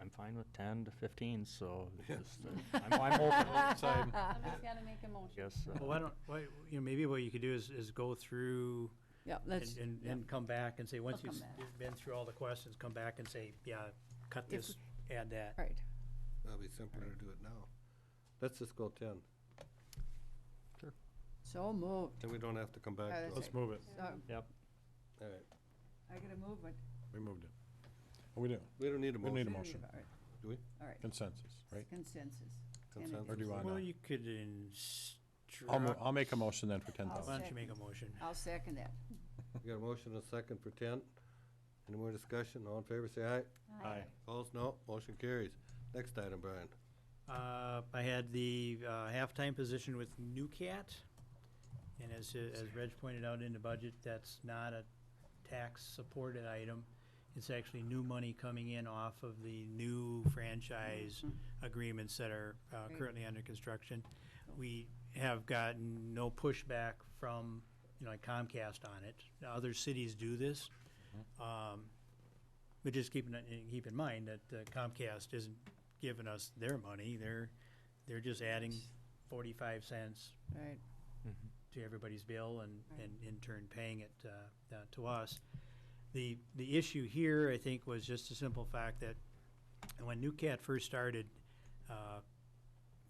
I'm fine with ten to fifteen, so Yeah. just, uh, I'm, I'm open. Same. I'm just gonna make a motion. Yes. uh, Well, why don't, why, you know, maybe what you could do is, is go through Yeah, and, let's, and, yeah. and come back and say, once I'll you've come s- been through all the questions, come back and say, yeah, cut If- this, add that. right. That'll be simpler to do it now. Let's just go ten, So moved. then we don't have to come back. Oh, to that's it. Let's move it. So Yep, All right, I gotta move it. We moved it. Oh, we do. we don't need a We need motion. a motion. All right. Do we? All right, Consensus, right? consensus. Or Consensus? do you want Well, to? you could I'll, mo- instruct, I'll make a motion then for ten I'll why thousand. don't you second. make a motion? I'll second that. We got a motion and a second for ten. Any more discussion? All in favor, say aye. Aye. Opposed, no. Motion carries. Next item, Brian. Uh, I had the uh, halftime position with New Cat, and as, as Reg pointed out in the budget, that's not a tax-supported item. It's actually new money coming in off of the new franchise Mm-hmm. agreements that are uh, Right. currently under construction. We have gotten no pushback from, you know, like Comcast on it. Now, Other cities do this. Um, But just keep in, in- keep in mind that uh, Comcast isn't giving us their money. They're, they're just adding forty-five cents Right, to everybody's bill and, Right. and in turn paying it uh, uh, to us. The, the issue here, I think, was just the simple fact that when New Cat first started, uh,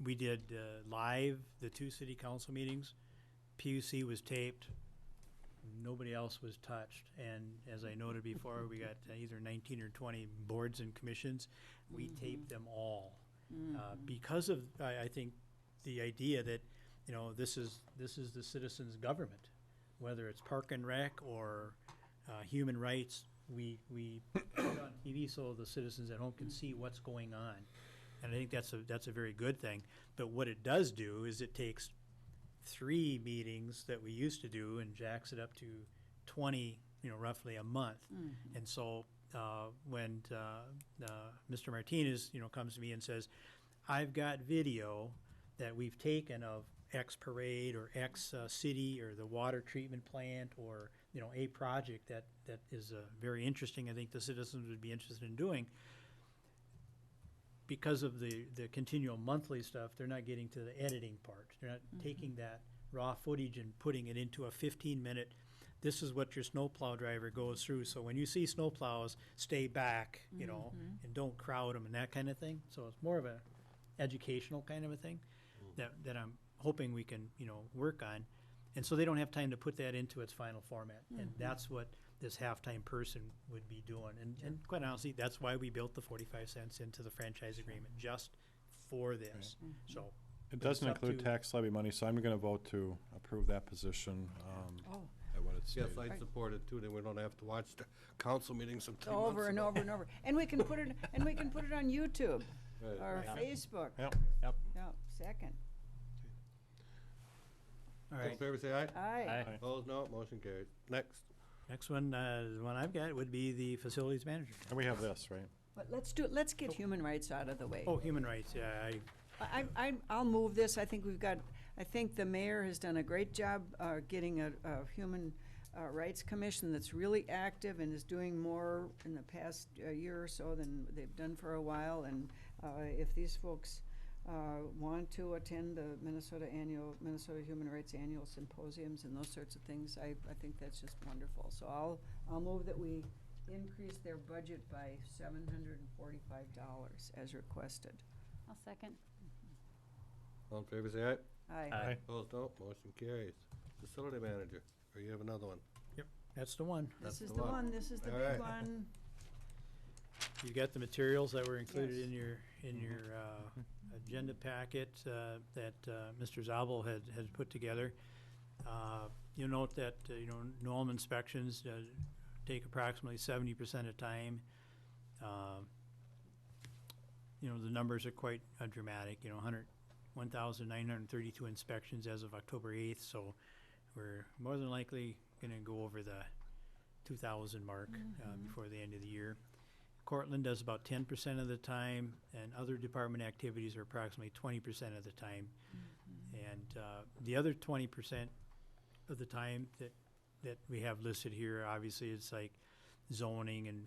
we did uh, live the two city council meetings. PUC was taped. Nobody else was touched. And as I noted before, we got either 19 or 20 boards and commissions. We taped them all. Uh, because of, I, I think, the idea that, you know, this is, this is the citizens' government, whether it's park and rec or, uh, human rights, we, we put it on TV so the citizens at home can see what's going on. And I think that's a, that's a very good thing, but what it does do is it takes three meetings that we used to do and jacks it up to twenty, you know, roughly a month. And so, uh, when, uh, uh, Mr. Martinez, you know, comes to me and says, I've got video that we've taken of X parade or X uh, city or the water treatment plant or, you know, a project that, that is uh, very interesting, I think the citizens would be interested in doing. Because of the, the continual monthly stuff, they're not getting to the editing part. They're not taking that raw footage and putting it into a fifteen-minute, this is what your snowplow driver goes through. So when you see snowplows, stay back, you know, and don't crowd them and that kind of thing. So it's more of a educational kind of a thing that, that I'm hoping we can, you know, work on. And so they don't have time to put that into its final format. And that's what this halftime person would be doing. And, and quite honestly, that's why we built the forty-five cents into the franchise agreement, just for this. So, It But it's doesn't up include to- tax levy money, so I'm going to vote to approve that position um, oh, at what it's Yes, stated. I support it too, then we don't have to watch the council meetings from three months over and ago. over and over. And we can put it, and we can put it on YouTube Right. or Yeah. Facebook. Yep. yep, Yeah, second. all All in right. favor, say aye. Aye. Aye. Opposed, no. Motion carries. Next. Next one, uh, the one I've got would be the facilities manager. And we have this, right? But let's do, let's get human rights out of the way. Oh, human rights, yeah, I, I, I, I'll move this. I think we've got, I think the mayor has done a great job, uh, getting a, a human, uh, rights commission that's really active and is doing more in the past uh, year or so than they've done for a while. And, uh, if these folks, uh, want to attend the Minnesota annual, Minnesota Human Rights Annual Symposiums and those sorts of things, I, I think that's just wonderful. So I'll, I'll move that we increase their budget by seven hundred and forty-five dollars as requested. I'll second. All in favor, say aye. Aye. Aye. Opposed, no. Motion carries. Facility manager, or you have another one? that's the one. That's This is the the one. one, this is the All big right. one. You got the materials that were included Yes. in your, in your, uh, agenda packet, uh, that, uh, Mr. Zabel had, had put together. Uh, you'll note that, uh, you know, norm inspections, uh, take approximately seventy percent of time. Um, You know, the numbers are quite uh, dramatic, you know, hundred, one thousand nine hundred and thirty-two inspections as of October eighth, so we're more than likely gonna go over the two thousand mark, uh, before the end of the year. Cortland does about ten percent of the time, and other department activities are approximately twenty percent of the time. And uh, the other twenty percent of the time that, that we have listed here, obviously, it's like zoning and